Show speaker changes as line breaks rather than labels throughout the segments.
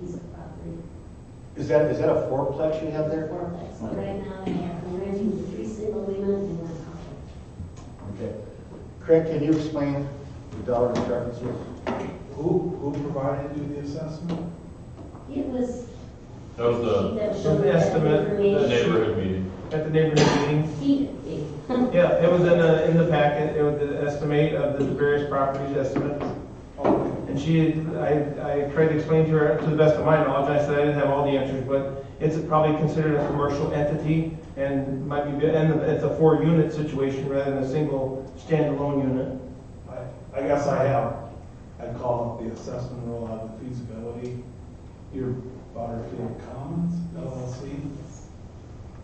piece of property.
Is that, is that a fourplex you have there?
fourplex. But right now, they have, they're renting the three single women and one couple.
Okay. Craig, can you explain the dollar discrepancies?
Who, who provided you the assessment?
It was.
That was the,
that
was
showed
the
that
estimate, the
the
information.
neighborhood meeting.
At the neighborhood meeting?
He, he-
Yeah, it was in the, in the packet, it was the estimate of the various properties estimates.
Okay.
And she, had- I, I tried to explain to her, to the best of my knowledge, and I said I didn't have all the answers, but it's probably considered a commercial entity and might be, and it's a four-unit situation rather than a single standalone unit.
I, I guess I have, I call it the assessment rule out of the feasibility. Your Butterfield Commons LLC,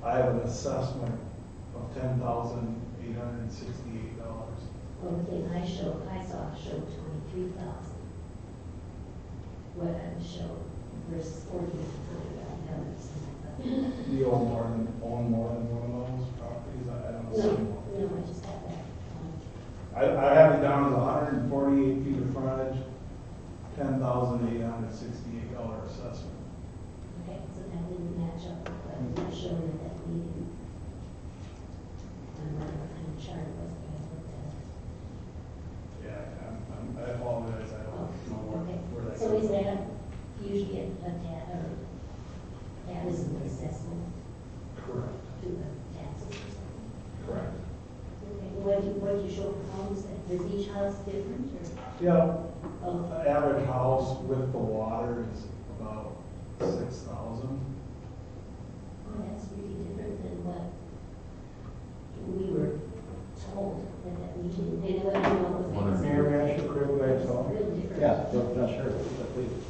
I have an assessment of ten thousand eight hundred and sixty-eight dollars.
okay, I showed, I saw, showed twenty-three thousand. What I showed versus forty-nine thousand.
Do you own more than, own more than one of those properties? I I don't
No,
see one.
no, I just had that.
I, I have it down to hundred and forty-eight feet of frontage, ten thousand eight hundred and sixty-eight dollar assessment.
Okay, so that didn't match up with what I showed at that meeting. I don't know what kind of chart it was that I looked at.
Yeah, I'm- I'm- I apologize, I
Oh,
don't know where,
okay.
where that.
So
came
is
from.
that usually a tab or that is an assessment
Correct,
to the taxes or something?
correct.
Okay, What you, what you show for homes, that- is each house different or?
Yeah,
oh,
a average house with the water is about six thousand.
Well, Oh, that's really different than what we were told at that meeting. And what I know was.
Wonder-
Mayor, may I ask you a quick question?
It's real different.
not sure, please.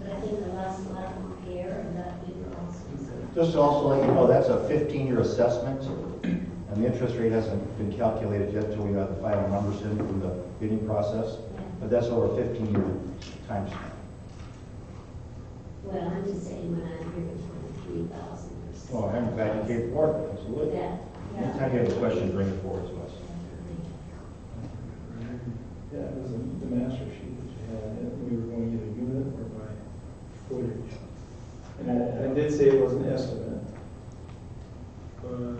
But I think the last lot of repair and that we were also concerned.
Just to also let you know, that's a fifteen-year assessment, and the interest rate hasn't been calculated yet till we have the final numbers in from the bidding process, but that's over a fifteen-year time span.
Well, I'm just saying when I'm here, twenty-three thousand or something.
Well, Oh, I'm glad you came forward, absolutely.
That, yeah.
Anytime you have a question, bring it forward to us.
Yeah, it was the master sheet that you had, and we were going either unit or by footage. And I, I did say it was an estimate, but.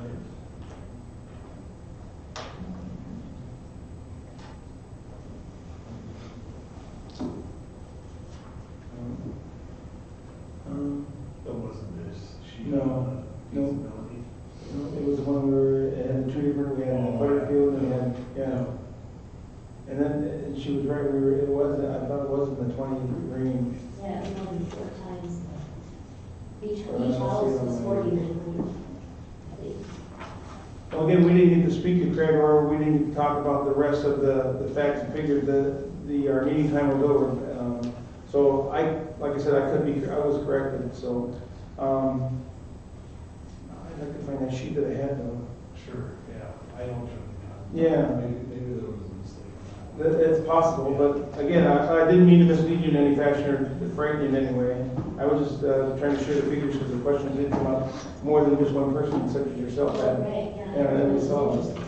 Um, um,
That wasn't this sheet.
No, no.
Feasibility.
no, It was one where it had the tree, we had the
Oh, yeah.
field, and we had, yeah. And then, and she was right, we were, it was, I thought it was in the twenty range.
Yeah, it was four times. the- Each, each
Or unless
house
you don't
was
mind.
forty-nine hundred. I think.
Well, Again, we didn't get to speak to Craig, or we didn't get to talk about the rest of the, the facts and figures, the, the, our meeting time was over. Um, So I, like I said, I could be, I was corrected, so, um, I'd like to find that sheet that I had though.
Sure, yeah, I don't know.
Yeah.
Maybe, maybe there was a mistake. on that one.
That, it's possible, but again, I, I didn't mean to mislead you in any fashion or frighten you in any way. I was just, uh, trying to share the figures because the questions did come up more than just one person such as yourself had.
Right, yeah.
Yeah, that was all.
But-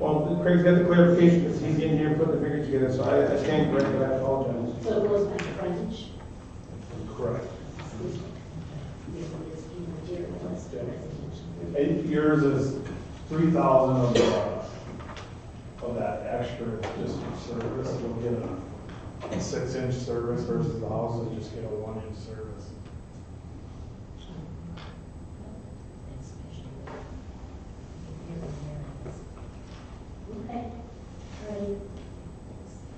Well, Craig's got the clarification, because he's in here putting the figures together, so I, I stand corrected, I apologize.
So it goes by frontage.
Correct.
This one is being material, that's the residential.
Eight years is three thousand of the, of that extra just for service, you'll get a six inch service versus the house will just get a one inch service.
That's special. Okay, all right.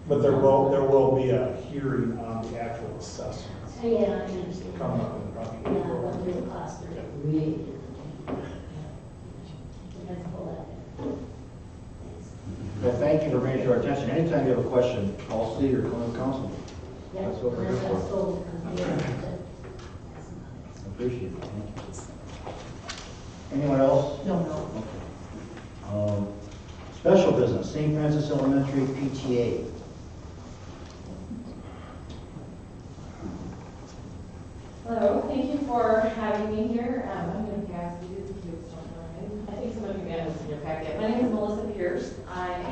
But there will, there will be a hearing on the actual assessments
Oh, Yeah, I understand.
coming up in probably
Yeah, what
April.
real cost are really different. That's a whole lot. Thanks.
Well, thank you for bringing it to our attention. Anytime you have a question, call Steve or come to council.
Yeah,
That's what we're here
that's
for.
sold, uh, yeah,
I Appreciate it. Thank you. Anyone else?
No, no.
Um, Special business, St. Francis Elementary PTA.
Hello, thank you for having me here. Um,